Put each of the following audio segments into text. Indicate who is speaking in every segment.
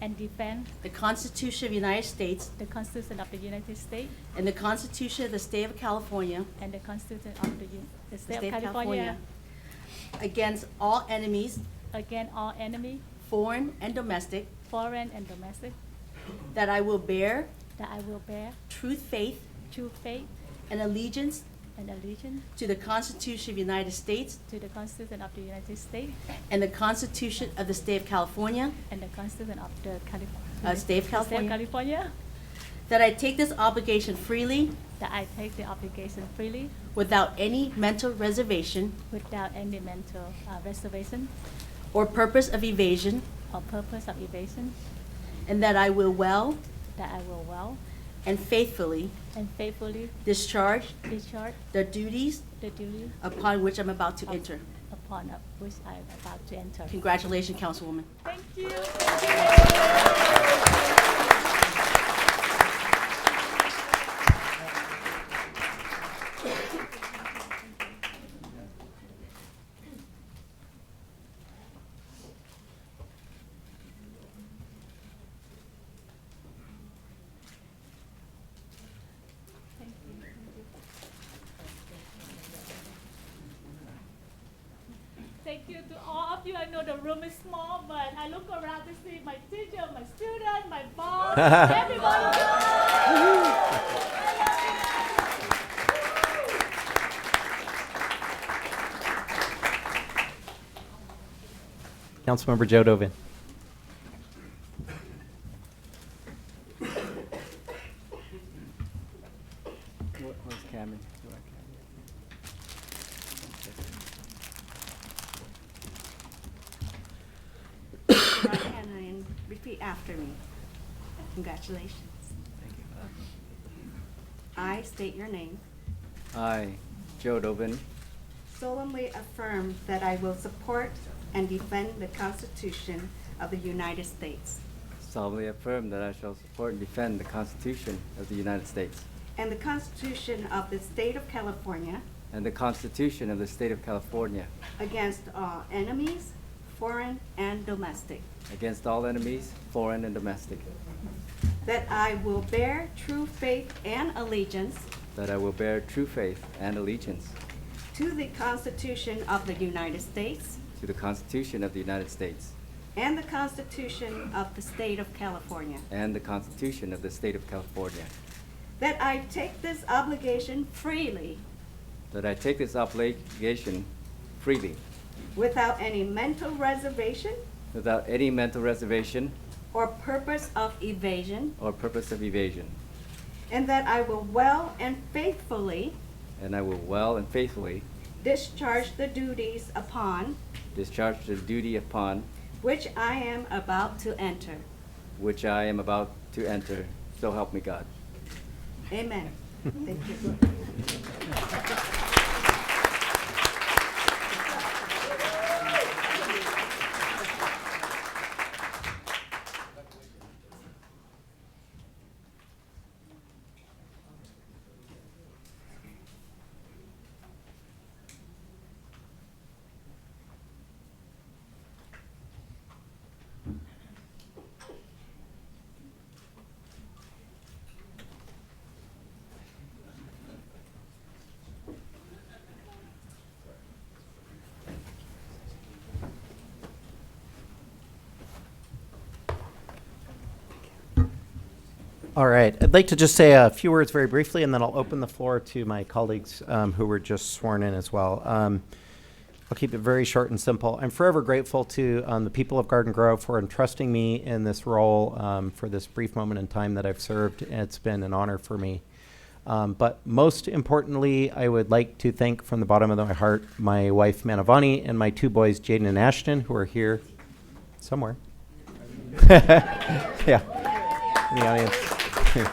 Speaker 1: and defend
Speaker 2: the Constitution of the United States
Speaker 1: the Constitution of the United States
Speaker 2: and the Constitution of the State of California
Speaker 1: and the Constitution of the U- the
Speaker 2: the
Speaker 1: State of California
Speaker 2: against all enemies,
Speaker 1: against all enemy,
Speaker 2: foreign and domestic,
Speaker 1: foreign and domestic,
Speaker 2: that I will bear
Speaker 1: that I will bear
Speaker 2: true faith
Speaker 1: true faith
Speaker 2: and allegiance
Speaker 1: and allegiance
Speaker 2: to the Constitution of the United States
Speaker 1: to the Constitution of the United States
Speaker 2: and the Constitution of the State of California,
Speaker 1: and the Constitution of the California.
Speaker 2: Uh, State of California.
Speaker 1: California,
Speaker 2: that I take this obligation freely
Speaker 1: that I take the obligation freely
Speaker 2: without any mental reservation
Speaker 1: without any mental uh, reservation
Speaker 2: or purpose of evasion,
Speaker 1: or purpose of evasion,
Speaker 2: and that I will well
Speaker 1: that I will well
Speaker 2: and faithfully
Speaker 1: and faithfully
Speaker 2: discharge
Speaker 1: discharge
Speaker 2: the duties
Speaker 1: the duty
Speaker 2: upon which I'm about to
Speaker 1: of-
Speaker 2: enter.
Speaker 1: upon uh, which I am about to enter.
Speaker 2: Congratulations, Councilwoman.
Speaker 1: Thank you. Thank you to all of you. I know the room is small, but I look around to see my teacher, my student, my boss, everybody.
Speaker 3: Councilmember Joe Dovin.
Speaker 4: Where's Cameron?
Speaker 2: right hand and repeat after me. Congratulations. I state your name.
Speaker 4: I, Joe Dobin,
Speaker 2: solemnly affirm that I will support and defend the Constitution of the United States
Speaker 4: solemnly affirm that I shall support and defend the Constitution of the United States
Speaker 2: and the Constitution of the State of California
Speaker 4: and the Constitution of the State of California
Speaker 2: against all enemies, foreign and domestic,
Speaker 4: against all enemies, foreign and domestic,
Speaker 2: that I will bear true faith and allegiance
Speaker 4: that I will bear true faith and allegiance
Speaker 2: to the Constitution of the United States
Speaker 4: to the Constitution of the United States
Speaker 2: and the Constitution of the State of California,
Speaker 4: and the Constitution of the State of California,
Speaker 2: that I take this obligation freely
Speaker 4: that I take this obligation freely
Speaker 2: without any mental reservation
Speaker 4: without any mental reservation
Speaker 2: or purpose of evasion,
Speaker 4: or purpose of evasion,
Speaker 2: and that I will well and faithfully
Speaker 4: and I will well and faithfully
Speaker 2: discharge the duties upon
Speaker 4: discharge the duty upon
Speaker 2: which I am about to enter.
Speaker 4: which I am about to enter, so help me God.
Speaker 2: Amen. Thank you.
Speaker 3: All right. I'd like to just say a few words very briefly, and then I'll open the floor to my colleagues um, who were just sworn in as well. Um, I'll keep it very short and simple. I'm forever grateful to um, the people of Garden Grove for entrusting me in this role um, for this brief moment in time that I've served. It's been an honor for me. Um, but most importantly, I would like to thank from the bottom of my heart my wife Manavani and my two boys, Jaden and Ashton, who are here somewhere. yeah, in the audience.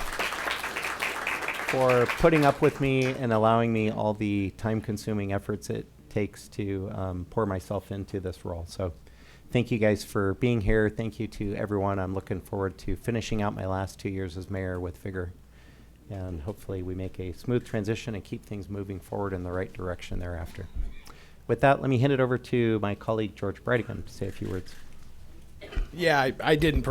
Speaker 3: For putting up with me and allowing me all the time consuming efforts it takes to um, pour myself into this role. So, thank you guys for being here. Thank you to everyone. I'm looking forward to finishing out my last two years as mayor with vigor. And hopefully, we make a smooth transition and keep things moving forward in the right direction thereafter. With that, let me hand it over to my colleague George Brightingham to say a few words.
Speaker 5: Yeah, I, I didn't prepare